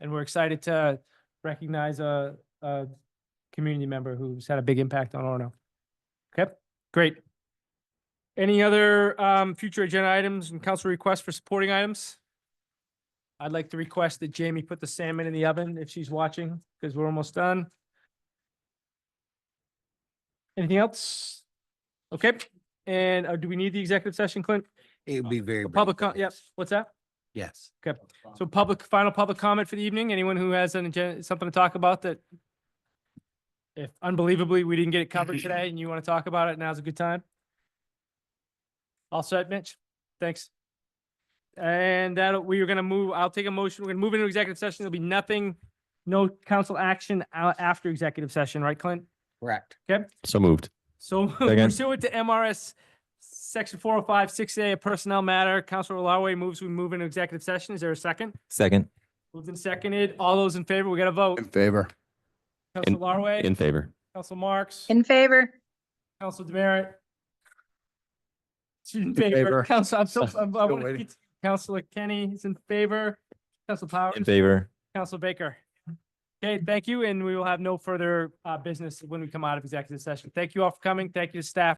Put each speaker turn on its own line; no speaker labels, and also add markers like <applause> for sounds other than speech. and we're excited to recognize a, a community member who's had a big impact on Orno. Okay, great. Any other um, future agenda items and council requests for supporting items? I'd like to request that Jamie put the salmon in the oven if she's watching, because we're almost done. Anything else? Okay, and uh, do we need the executive session, Clint?
It would be very.
Uh, The
brief,
Public,
I
co- yep,
guess.
what's that?
Yes.
So public, final public comment for the evening, anyone who has an agenda, something to talk about that if unbelievably, we didn't get it covered today and you want to talk about it, now's a good time. All set, Mitch? Thanks. And that, we are going to move, I'll take a motion, we're going to move into executive session, there'll be nothing, no council action a- after executive session, right, Clint?
Correct.
So moved.
So <laughs>
Second.
pursuant to MRS section four oh five, six A, a personnel matter, Counselor Larway moves, we move into executive session, is there a second?
Second.
Moved and seconded. All those in favor, we got a vote.
favor.
Council Larway,
In favor.
Council Marks,
In favor?
Council Demerit. She's In favor.
favor.
Council, I'm so,
Still
I'm, I want to
waiting.
get to Councilor Kenny is in favor. Council Powers,
In favor.
Council Baker. Okay, thank you, and we will have no further, uh, business when we come out of executive session. Thank you all for coming. Thank you to staff.